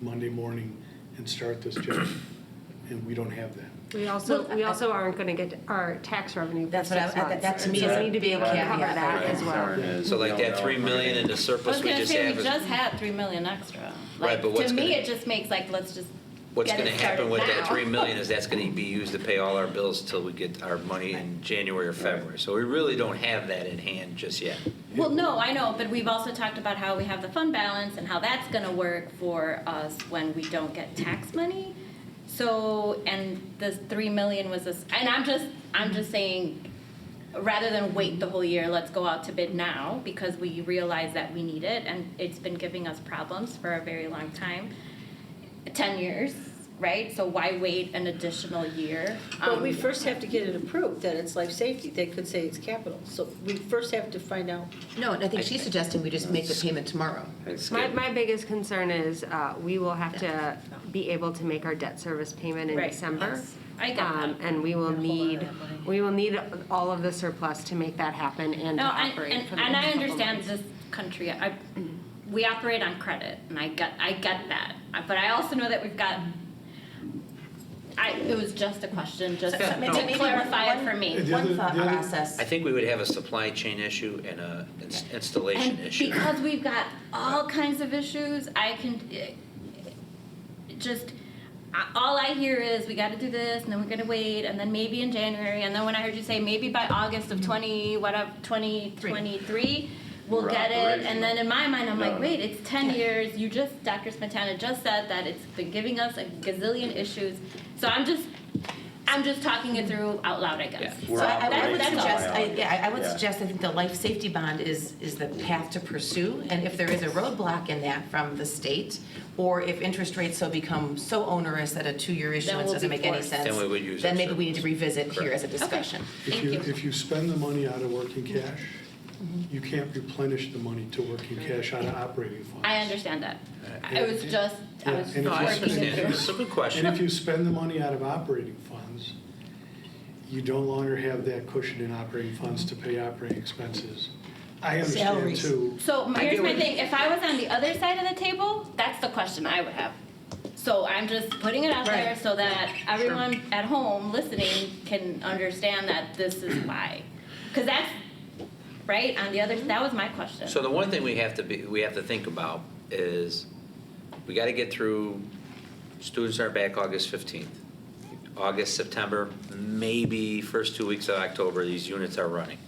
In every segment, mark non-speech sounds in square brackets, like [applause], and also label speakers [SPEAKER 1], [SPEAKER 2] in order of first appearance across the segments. [SPEAKER 1] Monday morning and start this job. And we don't have that.
[SPEAKER 2] We also,
[SPEAKER 3] Well,
[SPEAKER 2] we
[SPEAKER 3] I-
[SPEAKER 2] also aren't going to get our tax revenue for
[SPEAKER 3] That's what I-
[SPEAKER 2] six
[SPEAKER 3] I-
[SPEAKER 2] months.
[SPEAKER 3] that to me
[SPEAKER 2] So
[SPEAKER 3] is
[SPEAKER 2] we need to be able to
[SPEAKER 3] caveat,
[SPEAKER 2] cover that
[SPEAKER 3] right.
[SPEAKER 2] as well.
[SPEAKER 4] So like that three million in the
[SPEAKER 5] I was
[SPEAKER 4] surplus we
[SPEAKER 5] gonna
[SPEAKER 4] just
[SPEAKER 5] say,
[SPEAKER 4] have
[SPEAKER 5] we
[SPEAKER 4] is,
[SPEAKER 5] just had three million extra.
[SPEAKER 4] Right,
[SPEAKER 5] Like,
[SPEAKER 4] but what's
[SPEAKER 5] To me,
[SPEAKER 4] gonna-
[SPEAKER 5] it just makes like, let's just
[SPEAKER 4] what's
[SPEAKER 5] get
[SPEAKER 4] gonna
[SPEAKER 5] it
[SPEAKER 4] happen
[SPEAKER 5] started
[SPEAKER 4] with that
[SPEAKER 5] now.
[SPEAKER 4] three million is that's gonna be used to pay all our bills till we get our money in January or February. So we really don't have that in hand just yet.
[SPEAKER 5] Well, no, I know, but we've also talked about how we have the fund balance and how that's gonna work for us when we don't get tax money. So, and the three million was this, and I'm just, I'm just saying, rather than wait the whole year, let's go out to bid now because we realize that we need it and it's been giving us problems for a very long time. Ten years, right? So why wait an additional year?
[SPEAKER 6] But
[SPEAKER 5] Um,
[SPEAKER 6] we first have to get it approved, that it's life safety, they could say it's capital, so we first have to find out.
[SPEAKER 3] No, and I think she's suggesting we just make the payment tomorrow.
[SPEAKER 2] My, my biggest concern is uh, we will have to be able to make our debt service payment in
[SPEAKER 5] Right.
[SPEAKER 2] December.
[SPEAKER 5] Yes. I get
[SPEAKER 2] Um,
[SPEAKER 5] that.
[SPEAKER 2] And we will need, we will need all of the surplus to make that happen and to
[SPEAKER 5] No, and,
[SPEAKER 2] operate
[SPEAKER 5] and,
[SPEAKER 2] for the
[SPEAKER 5] and I
[SPEAKER 2] next couple
[SPEAKER 5] understand
[SPEAKER 2] months. Mm-hmm.
[SPEAKER 5] this country. I, we operate on credit, and I get, I get that. Uh, But I also know that we've got. I, it was just a question, just
[SPEAKER 3] So- so maybe-
[SPEAKER 5] to
[SPEAKER 3] maybe
[SPEAKER 5] clarify it
[SPEAKER 3] one-
[SPEAKER 5] for me.
[SPEAKER 1] The other-
[SPEAKER 3] One thought
[SPEAKER 1] the other-
[SPEAKER 3] process.
[SPEAKER 4] I think we would have a supply chain issue and a ins- installation
[SPEAKER 5] And
[SPEAKER 4] issue.
[SPEAKER 5] because we've got all kinds of issues, I can eh, just. I- All I hear is we got to do this, and then we're gonna wait, and then maybe in January, and then when I heard you say maybe by August of twenty whatever twenty twenty three, we'll
[SPEAKER 7] We're
[SPEAKER 5] get it. And then in my mind, I'm like,
[SPEAKER 7] No.
[SPEAKER 5] wait, it's ten years. You just Dr. Smetana just said that it's been giving us a gazillion issues. So I'm just, I'm just talking it through out loud, I guess.
[SPEAKER 7] We're
[SPEAKER 3] So I- I would
[SPEAKER 7] operating
[SPEAKER 3] suggest, I-
[SPEAKER 7] biology.
[SPEAKER 3] yeah, I I would
[SPEAKER 7] Yeah.
[SPEAKER 3] suggest, I think the life safety bond is, is the path to pursue. And if there is a roadblock in that from the state, or if interest rates so become so onerous that a two-year issuance
[SPEAKER 5] we'll
[SPEAKER 3] doesn't
[SPEAKER 5] be
[SPEAKER 3] make any
[SPEAKER 5] forced.
[SPEAKER 3] sense.
[SPEAKER 4] Then we would use
[SPEAKER 3] Then
[SPEAKER 4] that
[SPEAKER 3] maybe we need to
[SPEAKER 4] surplus.
[SPEAKER 3] revisit here as a discussion.
[SPEAKER 1] If
[SPEAKER 5] Thank
[SPEAKER 1] you,
[SPEAKER 5] you.
[SPEAKER 1] if you spend the money out of working cash, you can't replenish the money to working cash out of operating funds.
[SPEAKER 5] I understand that.
[SPEAKER 1] Yeah.
[SPEAKER 5] It was just, I
[SPEAKER 1] Yeah,
[SPEAKER 5] was
[SPEAKER 1] and
[SPEAKER 4] No, I
[SPEAKER 5] working
[SPEAKER 4] understand.
[SPEAKER 5] it through.
[SPEAKER 4] It's a good
[SPEAKER 1] And if
[SPEAKER 4] question.
[SPEAKER 1] you spend the money out of operating funds, you no longer have that cushion in operating funds to pay operating expenses. I understand
[SPEAKER 6] Salaries.
[SPEAKER 1] too.
[SPEAKER 5] So my-
[SPEAKER 4] I
[SPEAKER 5] here's
[SPEAKER 4] get
[SPEAKER 5] my
[SPEAKER 4] what-
[SPEAKER 5] thing, if I was on the other side of the table, that's the question I would have. So I'm just putting it out there
[SPEAKER 3] Right.
[SPEAKER 5] so that everyone at home listening can understand that this is
[SPEAKER 4] [clears throat]
[SPEAKER 5] why. Cause that's, right, on the other, that was my question.
[SPEAKER 4] Mm-hmm. So the one thing we have to be, we have to think about is, we gotta get through, students are back August fifteenth. August, September, maybe first two weeks of October, these units are running.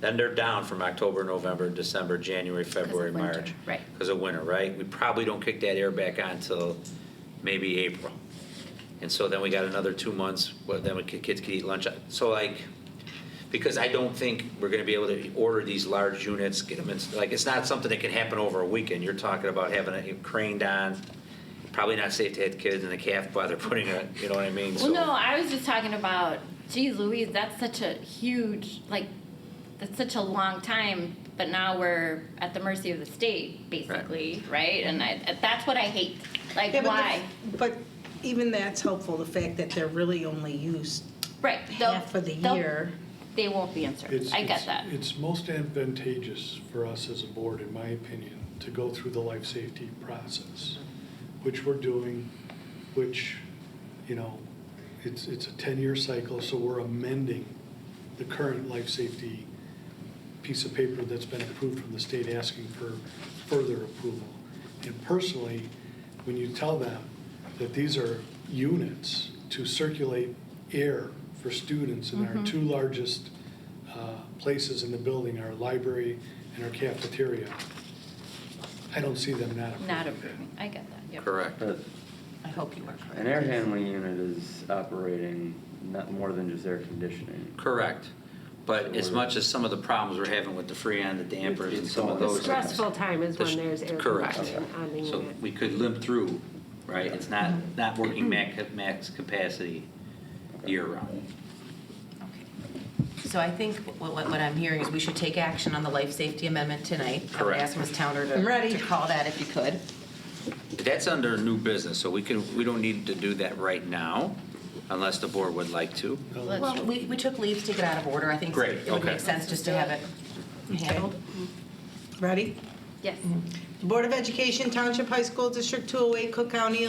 [SPEAKER 4] Then they're down from October, November, December, January, February,
[SPEAKER 5] winter,
[SPEAKER 4] March.
[SPEAKER 5] right.
[SPEAKER 4] Because of winter, right? We probably don't kick that air back on till maybe April. And so then we got another two months, well, then we could, kids could eat lunch. So like, because I don't think we're gonna be able to order these large units, get them in, like, it's not something that can happen over a weekend. You're talking about having it craned on, probably not safe to have kids in the calf while they're putting it, you know what I mean?
[SPEAKER 5] Well,
[SPEAKER 4] So-
[SPEAKER 5] no, I was just talking about, geez Louise, that's such a huge, like, that's such a long time, but now we're at the mercy of the state, basically, right? And I, that's what I hate. Like,
[SPEAKER 8] Yeah, but the-
[SPEAKER 5] why?
[SPEAKER 8] But even that's helpful, the fact that they're really only used
[SPEAKER 5] Right. they'll-
[SPEAKER 8] half of the
[SPEAKER 5] they'll-
[SPEAKER 8] year.
[SPEAKER 5] They won't be in service.
[SPEAKER 1] It's-
[SPEAKER 5] I get
[SPEAKER 1] it's-
[SPEAKER 5] that.
[SPEAKER 1] It's most advantageous for us as a board, in my opinion, to go through the life safety process,
[SPEAKER 5] Mm-hmm.
[SPEAKER 1] which we're doing, which, you know, it's, it's a 10-year cycle, so we're amending the current life safety piece of paper that's been approved from the state asking for further approval. And personally, when you tell them that these are units to circulate air for students in
[SPEAKER 5] Mm-hmm.
[SPEAKER 1] our two largest uh, places in the building, our library and our cafeteria, I don't see them not approving.
[SPEAKER 5] Not
[SPEAKER 1] that.
[SPEAKER 5] approving. I get that. Yep.
[SPEAKER 4] Correct.
[SPEAKER 7] But
[SPEAKER 3] I hope you are correct.
[SPEAKER 7] An air handling unit is operating not more than just air conditioning.
[SPEAKER 4] Correct. But as much as some of the problems we're having with the Freon, the dampers, and some of those.
[SPEAKER 2] Stressful time is when
[SPEAKER 4] This-
[SPEAKER 2] there's air
[SPEAKER 4] correct.
[SPEAKER 2] conditioning on the
[SPEAKER 4] So
[SPEAKER 2] unit.
[SPEAKER 4] we could limp through, right? It's not, not working max, max capacity year-round.
[SPEAKER 3] Okay. So I think what, what what I'm hearing is we should take action on the life safety amendment tonight. I would
[SPEAKER 4] Correct.
[SPEAKER 3] ask Ms. Towner
[SPEAKER 6] I'm ready.
[SPEAKER 3] to, to call that if you could.
[SPEAKER 4] That's under new business, so we can, we don't need to do that right now, unless the board would like to.
[SPEAKER 3] Well, we, we took leaves to get out of order. I think
[SPEAKER 4] Great,
[SPEAKER 3] it would
[SPEAKER 4] okay.
[SPEAKER 3] make sense just to have it handled.
[SPEAKER 8] Ready?
[SPEAKER 5] Yes.
[SPEAKER 8] Board of Education Township High School District 208, Cook County,